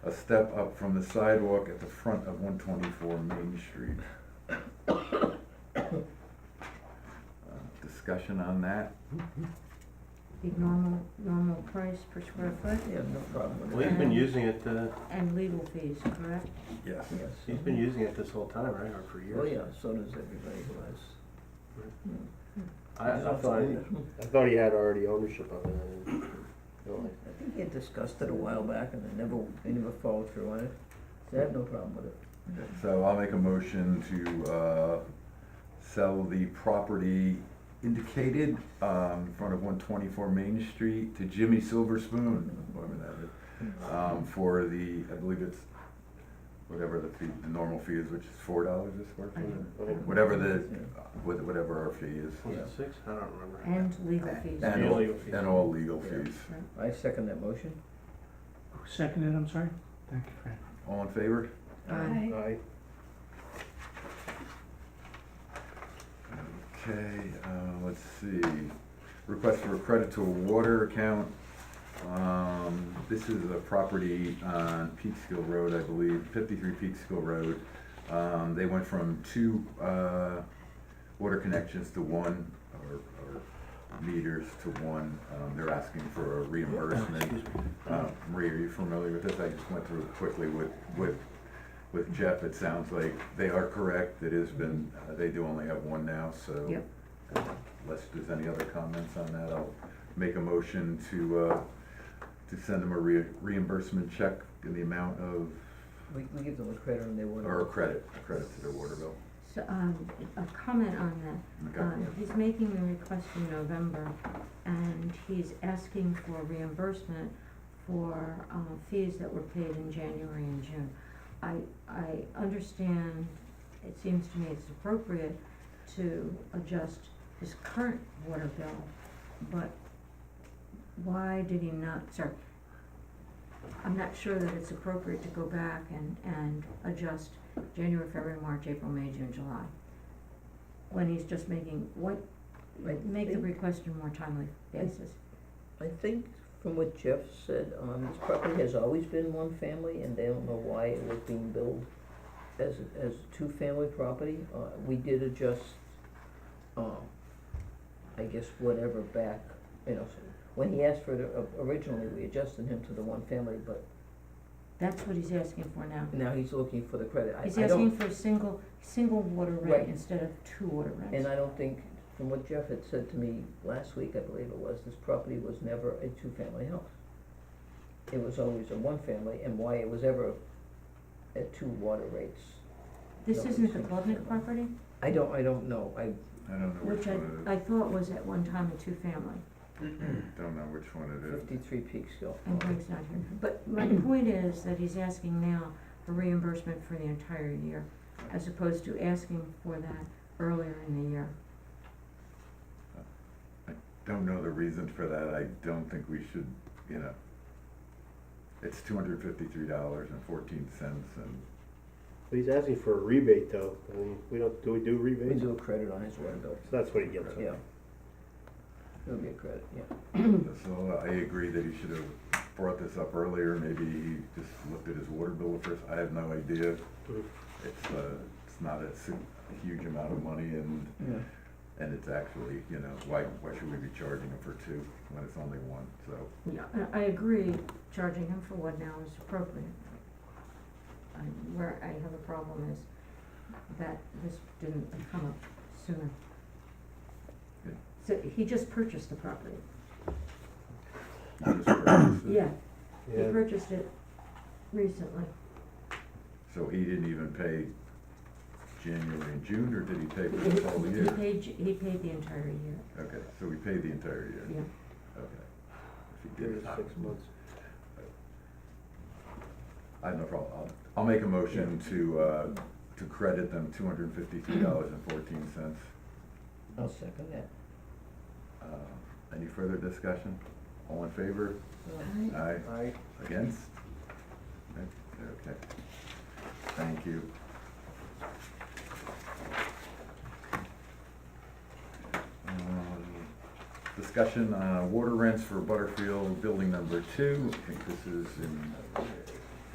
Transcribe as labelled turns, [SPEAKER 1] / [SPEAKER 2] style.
[SPEAKER 1] a step up from the sidewalk at the front of one twenty-four Main Street. Uh, Discussion on that?
[SPEAKER 2] the normal, normal price per square foot
[SPEAKER 3] Yeah, no problem with that.
[SPEAKER 4] Well, he's been using it, uh,
[SPEAKER 2] and legal fees, correct?
[SPEAKER 1] Yes.
[SPEAKER 3] Yes.
[SPEAKER 4] he's been using it this whole time, right, or for years?
[SPEAKER 3] Oh, yeah, so does everybody who has.
[SPEAKER 4] I, I thought, I thought he had already ownership of it, I didn't realize.
[SPEAKER 3] I think he had discussed it a while back and they never, they never followed through on it. So I have no problem with it.
[SPEAKER 1] So I'll make a motion to, uh, sell the property indicated, um, in front of one twenty-four Main Street to Jimmy Silver Spoon, whatever that is, um, for the, I believe it's, whatever the fee, the normal fee is, which is four dollars a square
[SPEAKER 2] Mm-hmm.
[SPEAKER 1] foot, whatever the, with- whatever our fee is.
[SPEAKER 4] Was it six? I don't remember.
[SPEAKER 2] And legal fees.
[SPEAKER 1] And all,
[SPEAKER 4] Legal fees.
[SPEAKER 1] and all legal fees.
[SPEAKER 3] I second that motion.
[SPEAKER 5] Who seconded, I'm sorry? Thank you, Fran.
[SPEAKER 1] All in favor?
[SPEAKER 2] Aye.
[SPEAKER 4] I,
[SPEAKER 1] Okay, uh, let's see, request for a credit to a water account. Um, this is a property on Peekskill Road, I believe, fifty-three Peekskill Road. Um, they went from two, uh, water connections to one, or, or meters to one. Um, they're asking for a reimbursement.
[SPEAKER 4] excuse me.
[SPEAKER 1] Uh, Maria, are you familiar with this? I just went through it quickly with, with, with Jeff. It sounds like they are correct. It has been, uh, they do only have one now, so. uh,
[SPEAKER 2] Yep.
[SPEAKER 1] Unless there's any other comments on that, I'll make a motion to, uh, to send them a re- reimbursement check in the amount of,
[SPEAKER 3] We, we give them a credit on their water.
[SPEAKER 1] or a credit, a credit to their water bill.
[SPEAKER 2] So, um, a comment on that,
[SPEAKER 1] Okay.
[SPEAKER 2] uh, he's making the request in November, and he's asking for reimbursement for, uh, fees that were paid in January and June. I, I understand, it seems to me it's appropriate to adjust his current water bill, but why did he not, sorry, I'm not sure that it's appropriate to go back and, and adjust January, February, March, April, May, June, July. When he's just making, what,
[SPEAKER 3] I
[SPEAKER 2] make the
[SPEAKER 3] think-
[SPEAKER 2] request on a more timely basis.
[SPEAKER 3] I think from what Jeff said, um, this property has always been one family and they don't know why it was being billed as, a- as a two-family property. Uh, we did adjust, um, I guess whatever back, you know, so when he asked for it o- originally, we adjusted him to the one family, but
[SPEAKER 2] That's what he's asking for now.
[SPEAKER 3] now he's looking for the credit. I,
[SPEAKER 2] He's
[SPEAKER 3] I don't,
[SPEAKER 2] asking for a single, single water rate
[SPEAKER 3] Right.
[SPEAKER 2] instead of two water rates.
[SPEAKER 3] and I don't think, from what Jeff had said to me last week, I believe it was, this property was never a two-family house. It was always a one-family, and why it was ever at two water rates,
[SPEAKER 2] This
[SPEAKER 3] No,
[SPEAKER 2] isn't the
[SPEAKER 3] single
[SPEAKER 2] Klubnik
[SPEAKER 3] family.
[SPEAKER 2] property,
[SPEAKER 3] I don't, I don't know, I,
[SPEAKER 1] I don't know which
[SPEAKER 2] which
[SPEAKER 1] one
[SPEAKER 2] I, I thought was at one time a two-family,
[SPEAKER 1] it is, don't know which one it is.
[SPEAKER 3] fifty-three Peekskill.
[SPEAKER 2] and Greg's not here. But my point is that he's asking now for reimbursement for the entire year, as opposed to asking for that earlier in the year.
[SPEAKER 1] Don't know the reason for that. I don't think we should, you know. It's two hundred fifty-three dollars and fourteen cents and
[SPEAKER 4] But he's asking for a rebate, though, I mean, we don't, do we do
[SPEAKER 3] We
[SPEAKER 4] rebates?
[SPEAKER 3] do a credit on his water bill,
[SPEAKER 4] So that's what he gets.
[SPEAKER 3] yeah. It'll be a credit, yeah.
[SPEAKER 1] So I agree that he should have brought this up earlier, maybe he just looked at his water bill first, I have no idea.
[SPEAKER 4] Mhm.
[SPEAKER 1] It's, uh, it's not a si- a huge amount of money and,
[SPEAKER 3] Yeah.
[SPEAKER 1] and it's actually, you know, why, why should we be charging him for two when it's only one, so.
[SPEAKER 2] Yeah, I, I agree, charging him for one now is appropriate. And where I have a problem is that this didn't come up sooner.
[SPEAKER 1] Yeah.
[SPEAKER 2] So he just purchased the property,
[SPEAKER 1] he just purchased it.
[SPEAKER 2] yeah, he
[SPEAKER 4] Yeah,
[SPEAKER 2] purchased it recently,
[SPEAKER 1] So he didn't even pay January and June, or did he pay for the whole
[SPEAKER 2] he
[SPEAKER 1] year?
[SPEAKER 2] paid, he paid the entire year,
[SPEAKER 1] Okay, so we paid the entire year,
[SPEAKER 2] yeah.
[SPEAKER 1] okay. If he
[SPEAKER 4] three
[SPEAKER 1] did
[SPEAKER 4] to
[SPEAKER 1] it, I-
[SPEAKER 4] six months.
[SPEAKER 1] I have no problem. I'll, I'll make a motion to, uh, to credit them two hundred and fifty-three dollars and fourteen cents.
[SPEAKER 3] I'll second that.
[SPEAKER 1] Uh, Any further discussion? All in favor? Aye.
[SPEAKER 4] I,
[SPEAKER 1] Against? Okay, Okay. Thank you. Um, Discussion, uh, water rents for Butterfield Building Number Two. I think this is in